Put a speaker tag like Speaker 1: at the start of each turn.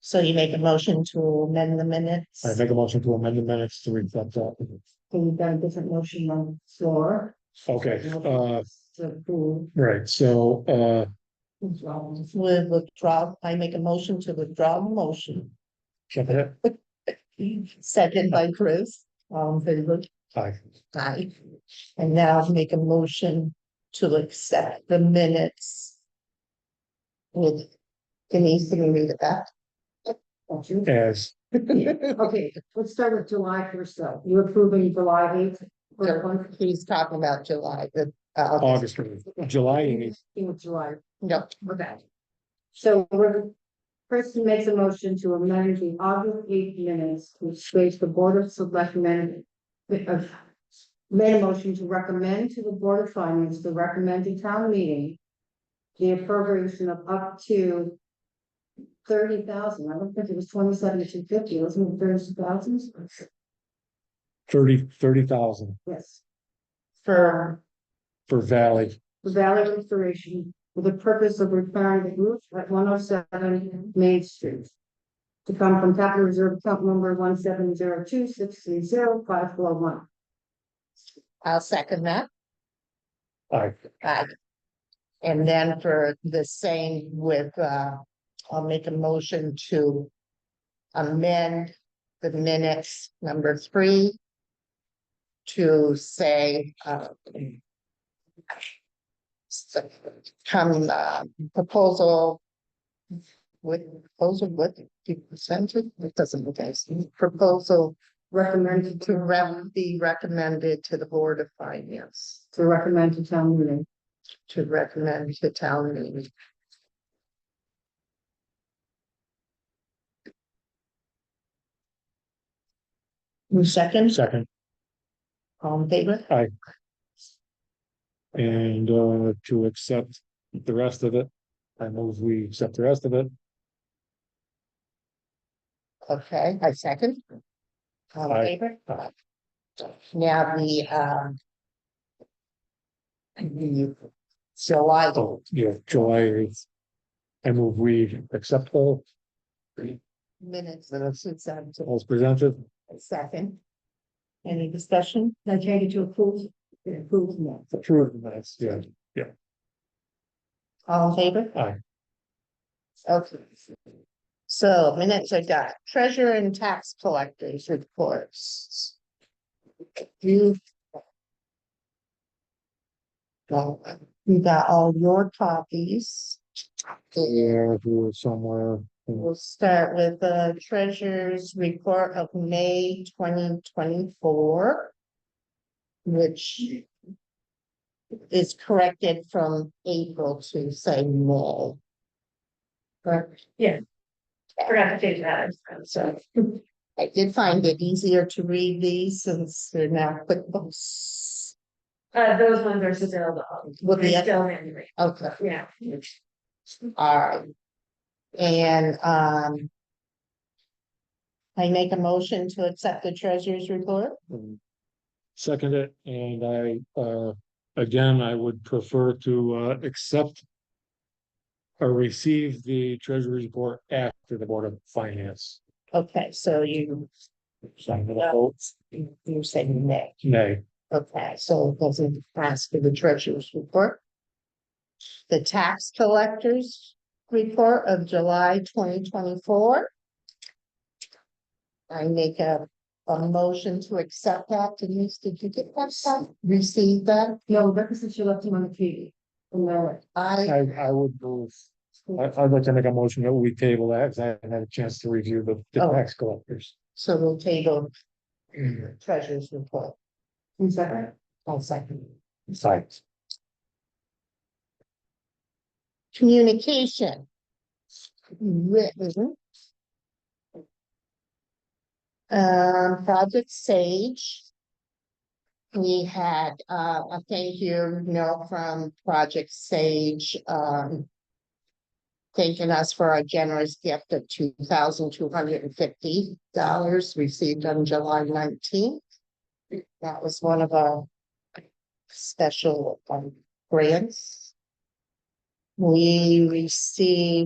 Speaker 1: So you make a motion to amend the minutes?
Speaker 2: I make a motion to amend the minutes to reflect that.
Speaker 3: So we've got a different motion on the floor
Speaker 2: Okay, uh,
Speaker 3: to approve.
Speaker 2: right, so, uh,
Speaker 3: as well.
Speaker 1: With withdraw, I make a motion to withdraw the motion,
Speaker 2: check it out.
Speaker 1: second by Chris, um, favor,
Speaker 2: Aye.
Speaker 1: aye. And now make a motion to accept the minutes. With Denise, can you read it back?
Speaker 3: Thank you.
Speaker 2: as,
Speaker 3: Okay, let's start with July first though. You approving July eighth?
Speaker 1: He's talking about July, the, uh,
Speaker 2: August, July, eighth.
Speaker 3: In July,
Speaker 1: no,
Speaker 3: okay. So we're, Kristen makes a motion to amend the August eighth minutes, which states the Board of Selectmen. uh, Made a motion to recommend to the Board of Finance the recommended town meeting. The appropriation of up to. Thirty thousand, I don't think it was twenty-seven to fifty, wasn't it thirty thousand?
Speaker 2: thirty, thirty thousand
Speaker 3: Yes.
Speaker 1: for
Speaker 2: for Valley.
Speaker 3: the Valley Restoration for the purpose of repairing the roof at one oh seven Main Street. To come from capital reserve account number one seven zero two six three zero five four one.
Speaker 1: I'll second that.
Speaker 2: Aye.
Speaker 1: Aye. And then for the same with, uh, I'll make a motion to amend the minutes number three to say, uh, s- come, uh, proposal with, proposal with, you presented, it doesn't make any sense, proposal
Speaker 3: Recommended
Speaker 1: to
Speaker 3: to,
Speaker 1: rem, be recommended to the Board of Finance,
Speaker 3: to recommend to town meeting.
Speaker 1: to recommend to town meeting. Who Seconds,
Speaker 2: Second,
Speaker 1: all in favor?
Speaker 2: and, uh, to accept the rest of it. I move we accept the rest of it.
Speaker 1: Okay, I second. All in
Speaker 2: Aye.
Speaker 1: favor?
Speaker 2: Aye.
Speaker 1: Now the, um. The July,
Speaker 2: Oh, yeah, July eighth. I move we accept all,
Speaker 1: minutes,
Speaker 2: Minutes.
Speaker 1: it's, um, to
Speaker 2: all's presented.
Speaker 1: second. Any discussion?
Speaker 3: Now change it to approve, approve now.
Speaker 2: True, that's, yeah.
Speaker 1: All in favor?
Speaker 2: Aye.
Speaker 1: Okay. So minutes are done. Treasurer and tax collectors reports. You. Well, you got all your copies.
Speaker 2: Yeah, if we were somewhere.
Speaker 1: We'll start with the treasurer's report of May twenty twenty-four. Which. Is corrected from April to say May. Correct?
Speaker 3: Forgot to change that.
Speaker 1: So I did find it easier to read these since they're now QuickBooks.
Speaker 3: Uh, those ones are still,
Speaker 1: With the-
Speaker 3: still manually,
Speaker 1: Okay,
Speaker 3: yeah.
Speaker 1: alright. And um. I make a motion to accept the treasurer's report.
Speaker 2: and um, Second it, and I, uh, again, I would prefer to, uh, accept. Or receive the treasury report after the Board of Finance.
Speaker 1: Okay, so you,
Speaker 2: Sign the votes.
Speaker 1: you said nay.
Speaker 2: Nay,
Speaker 1: Okay, so it doesn't pass for the treasurer's report. The tax collectors report of July twenty twenty-four. I make a, a motion to accept that. Denise, did you get that stuff? Receive that?
Speaker 3: No, Rebecca said she left him on the TV. And there,
Speaker 1: I,
Speaker 2: I, I would move, I, I'd like to make a motion that we table that, 'cause I haven't had a chance to review the, the
Speaker 1: Oh.
Speaker 2: tax collectors.
Speaker 1: so we'll table
Speaker 2: Mm-hmm.
Speaker 1: treasurer's report.
Speaker 3: in second,
Speaker 1: I'll second.
Speaker 2: Sites.
Speaker 1: Communication. Written. Um, Project Sage. We had, uh, a thank you note from Project Sage, um. Thanking us for our generous gift of two thousand two hundred and fifty dollars received on July nineteenth. That was one of our special um, grants. We received